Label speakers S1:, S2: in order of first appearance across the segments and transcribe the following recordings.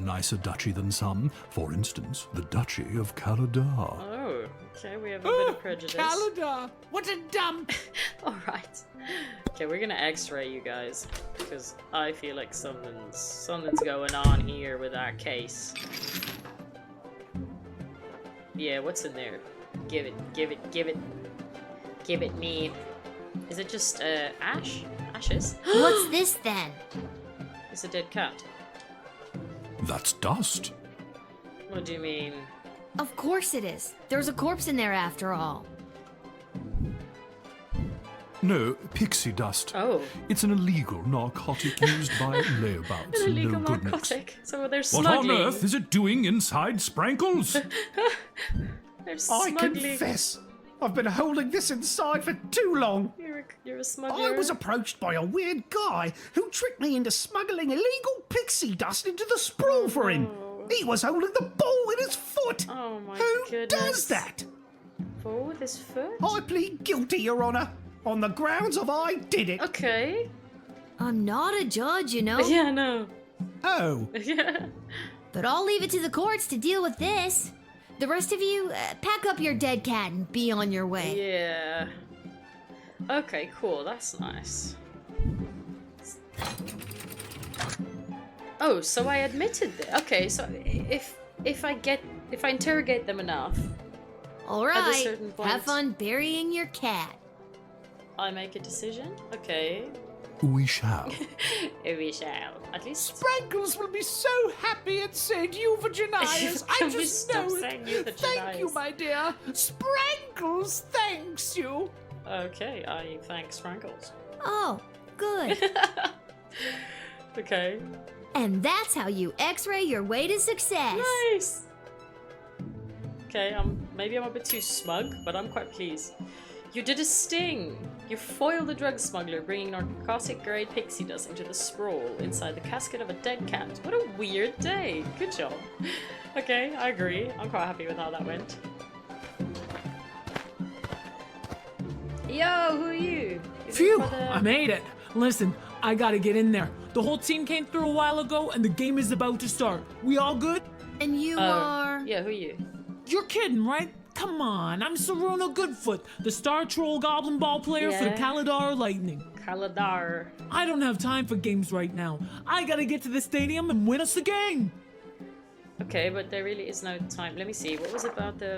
S1: nicer duchy than some. For instance, the Duchy of Caladar.
S2: Oh, okay, we have a bit of prejudice.
S3: Calendar! What a dump!
S2: All right. Okay, we're gonna X-ray you guys because I feel like something's something's going on here with our case. Yeah, what's in there? Give it, give it, give it, give it me. Is it just uh, ash? Ashes?
S4: What's this then?
S2: it's a dead cat.
S1: That's dust.
S2: What do you mean?
S4: Of course it is. There's a corpse in there after all.
S1: No, pixie dust.
S2: Oh,
S1: It's an illegal narcotic used by layabouts.
S2: an illegal
S1: no good mix.
S2: narcotic. So they're
S1: What
S2: smuggling.
S1: on earth is it doing inside Sprankles?
S2: They're
S3: I
S2: smuggling.
S3: confess, I've been holding this inside for too long.
S2: You're a, you're a
S3: I
S2: smuggler.
S3: was approached by a weird guy who tricked me into smuggling illegal pixie dust into the sprawl for him. He was holding the ball in his foot.
S2: Oh my
S3: who
S2: goodness.
S3: does that?
S2: Fool with his foot?
S3: I plead guilty, Your Honor, on the grounds of I did it.
S2: Okay.
S4: I'm not a judge, you know,
S2: Yeah, no.
S3: Oh,
S2: Yeah.
S4: but I'll leave it to the courts to deal with this. The rest of you, uh, pack up your dead cat and be on your way.
S2: Yeah. Okay, cool. That's nice. Oh, so I admitted that. Okay, so if if I get if I interrogate them enough,
S4: All
S2: At a
S4: right,
S2: certain point-
S4: have fun burying your cat.
S2: I make a decision. Okay,
S1: we shall.
S2: we shall. At least
S3: Sprankles will be so happy at St. Euphogenius. I
S2: Can we
S3: just
S2: stop
S3: know
S2: saying
S3: it. Thank you,
S2: Euphogenius?
S3: my dear. Sprankles thanks you.
S2: okay. I thanks Frankles.
S4: Oh, good.
S2: Okay.
S4: and that's how you x-ray your way to success.
S2: Nice. Okay, um, maybe I'm a bit too smug, but I'm quite pleased. You did a sting. You foiled a drug smuggler bringing narcotic-grade pixie dust into the sprawl inside the casket of a dead cat. What a weird day. Good job. Okay, I agree. I'm quite happy with how that went. Yo, who are you? Is it
S5: Phew!
S2: for the-
S5: I made it. Listen, I gotta get in there. The whole team came through a while ago, and the game is about to start. We all good?
S4: And you
S2: Oh,
S4: are
S2: Yeah, who are you?
S5: You're kidding, right? Come on, I'm Saruno Goodfoot, the Star Troll Goblin Ball player for the
S2: Yeah.
S5: Kalidar Lightning.
S2: Kaladar.
S5: I don't have time for games right now. I gotta get to the stadium and win us the game.
S2: Okay, but there really is no time. Let me see. What was about the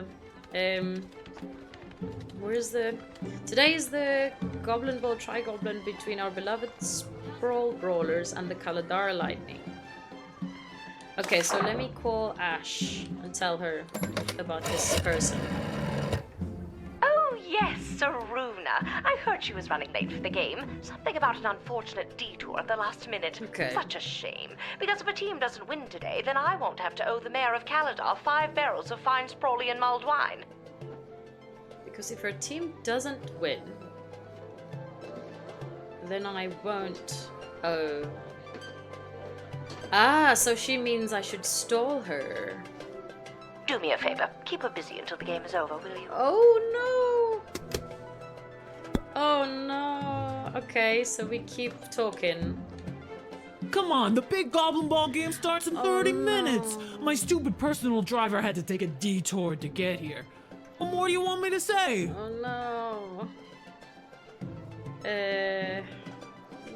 S2: um where's the today is the goblin ball tri-goblin between our beloved sprawl brawlers and the Kaladar lightning. Okay, so let me call Ash and tell her about this person.
S6: Oh, yes, Saruna. I heard she was running late for the game. Something about an unfortunate detour at the last minute.
S2: Okay.
S6: Such a shame. Because if a team doesn't win today, then I won't have to owe the mayor of Caladar five barrels of fine sprawly and mulled wine.
S2: Because if her team doesn't win, then I won't Oh. Ah, so she means I should stall her.
S6: Do me a favor. Keep her busy until the game is over, will you?
S2: Oh no! Oh no! Okay, so we keep talking.
S5: Come on, the big Goblin Ball game starts in
S2: Oh,
S5: 30 minutes. My stupid personal driver had to take a detour to get here. What more do you want me to say?
S2: Oh no! Uh.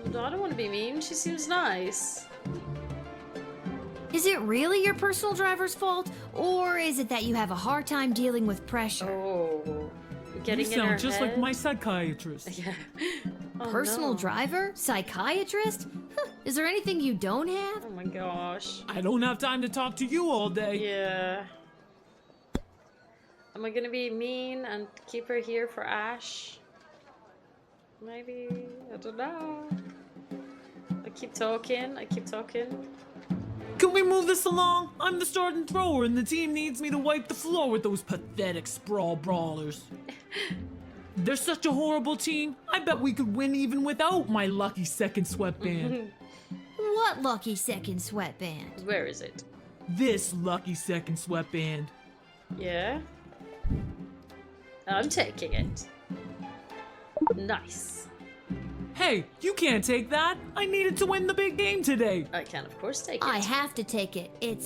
S2: I don't want to be mean. She seems nice.
S4: Is it really your personal driver's fault, or is it that you have a hard time dealing with pressure?
S2: Oh. Getting
S5: you
S2: in her
S5: sound just like
S2: head?
S5: my psychiatrist.
S2: Yeah. Oh,
S4: Personal
S2: no.
S4: driver? Psychiatrist? Huh, is there anything you don't have?
S2: Oh my gosh.
S5: I don't have time to talk to you all day.
S2: Yeah. Am I gonna be mean and keep her here for Ash? Maybe I don't know. I keep talking. I keep talking.
S5: Can we move this along? I'm the starting thrower, and the team needs me to wipe the floor with those pathetic sprawl brawlers. They're such a horrible team. I bet we could win even without my lucky second sweatband.
S4: What lucky second sweatband?
S2: Where is it?
S5: this lucky second sweatband.
S2: Yeah. I'm taking it. Nice.
S5: Hey, you can't take that. I needed to win the big game today.
S2: I can of course take it.
S4: I have to take it. It's